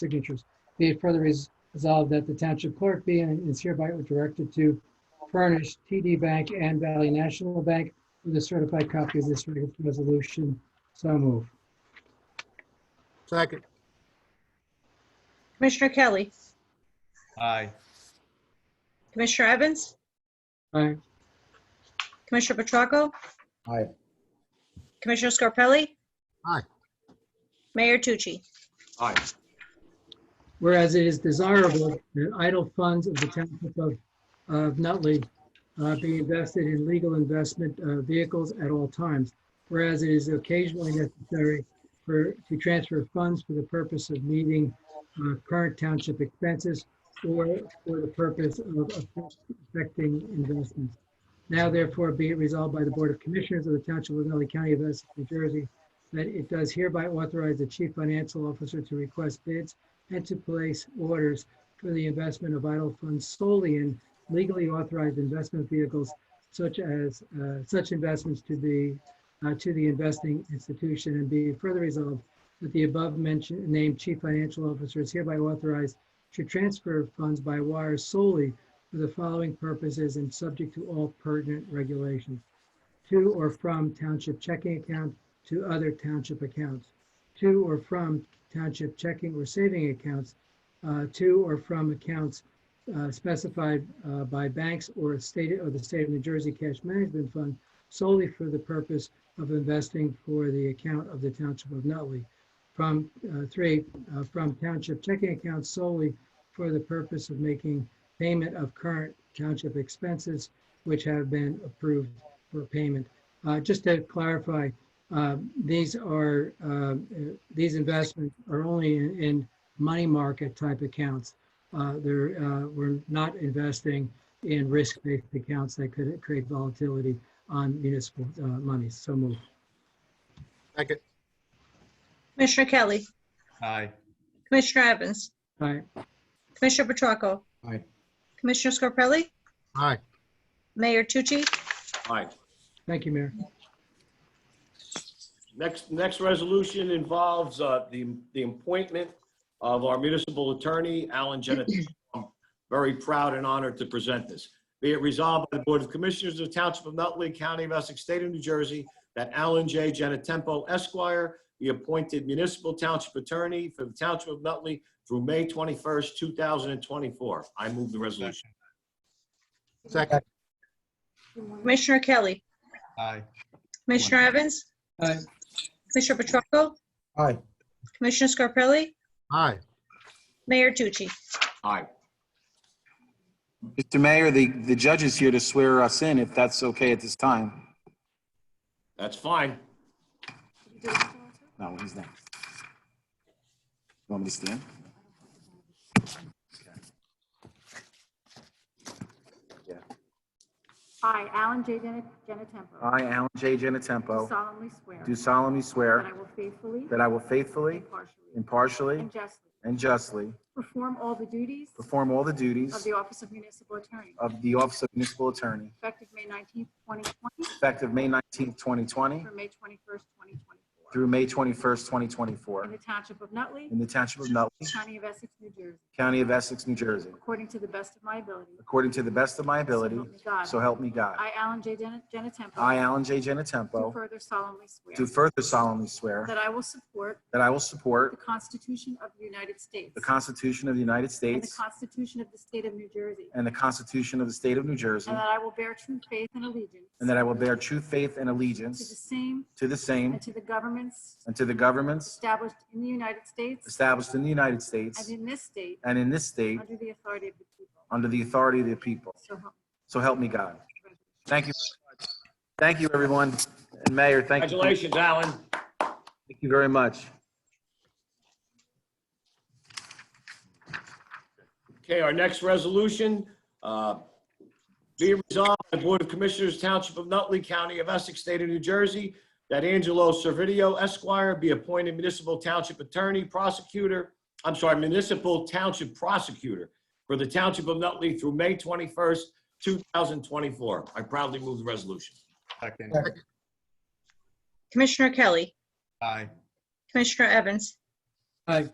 signatures. Be it further res- resolved that the township clerk be and is hereby directed to furnish TD Bank and Valley National Bank with a certified copy of this resolution. So move. Second, Commissioner Kelly. Aye. Commissioner Evans. Aye. Commissioner Petracco. Aye. Commissioner Scarpelli. Aye. Mayor Tucci. Aye. Whereas it is desirable that idle funds of the township of, of Nutley uh, be invested in legal investment uh, vehicles at all times. Whereas it is occasionally necessary for, to transfer funds for the purpose of meeting uh, current township expenses or for the purpose of affecting investments. Now therefore be it resolved by the Board of Commissioners of the Township of Nutley County of Essex, New Jersey, that it does hereby authorize the Chief Financial Officer to request bids and to place orders for the investment of idle funds solely in legally authorized investment vehicles such as, uh, such investments to the, uh, to the investing institution and be further resolved that the above mentioned named chief financial officer is hereby authorized to transfer funds by wire solely for the following purposes and subject to all pertinent regulations. To or from township checking account to other township accounts. To or from township checking or saving accounts uh, to or from accounts uh, specified uh, by banks or state or the state of New Jersey Cash Management Fund solely for the purpose of investing for the account of the Township of Nutley. From uh, three, uh, from township checking accounts solely for the purpose of making payment of current township expenses which have been approved for payment. Uh, Just to clarify, um, these are, um, uh, these investments are only in, in money market type accounts. Uh, They're, uh, we're not investing in risk-based accounts that could create volatility on municipal uh, monies. So move. second, Commissioner Kelly. Aye. Commissioner Evans. All right, Commissioner Petracco. Aye. Commissioner Scarpelli. aye, Mayor Tucci. Aye. thank you, Mayor. Next, next resolution involves uh, the, the appointment of our municipal attorney, Alan Genatino. I'm Very proud and honored to present this. Be it resolved by the Board of Commissioners of the Township of Nutley County of Essex, State of New Jersey, that Alan J. Genatempo Esquire be appointed municipal township attorney for the Township of Nutley through May 21st, 2024. I move the resolution. second, Commissioner Kelly. Aye. Commissioner Evans. Aye. Commissioner Petracco. Aye. Commissioner Scarpelli. aye, Mayor Tucci. Aye. Mr. Mayor, the, the judge is here to swear us in, if that's okay at this time. That's fine. No, he's not. Want me to stand? I, Alan J. Gena- Genatempo, I, Alan J. do Genatempo, solemnly swear do solemnly that I swear will faithfully, that I will faithfully, impartially, impartially, and justly and justly perform all the duties perform all the of duties the Office of Municipal Attorney, of the Office of Municipal Attorney, effective May 19th, 2020 effective May 19, 2020, through through May May 21st, 2024, 21st, in 2024, the Township of Nutley, in the Township of Nutley, County of Essex, New Jersey, County of Essex, New Jersey, according to the best of my ability. according to the best of my ability, so help me God. I, Alan J. Gena- Genatempo, I, Alan J. do Genatempo, further solemnly do swear further solemnly swear that I will support that I will the support Constitution of the United States the Constitution of the United and the States Constitution of the State of New Jersey, and the Constitution of the State of New Jersey, And that I will bear true faith and allegiance. and that I will bear true faith and To the allegiance same to the same and to the governments and to the governments established in the United States established in the United and States in this state, and in this state under the authority of the people. under the authority of the people. So help So help me God. me God. Thank you. Thank you, everyone. And Mayor, thank you. Thank Congratulations, Alan. you very much. Okay, our next resolution, uh, be it resolved by the Board of Commissioners Township of Nutley County of Essex State of New Jersey that Angelo Servideo Esquire be appointed municipal township attorney prosecutor, I'm sorry, municipal township prosecutor for the Township of Nutley through May 21st, 2024. I proudly move the resolution. Second. Commissioner Kelly. Aye. Commissioner Evans. Aye.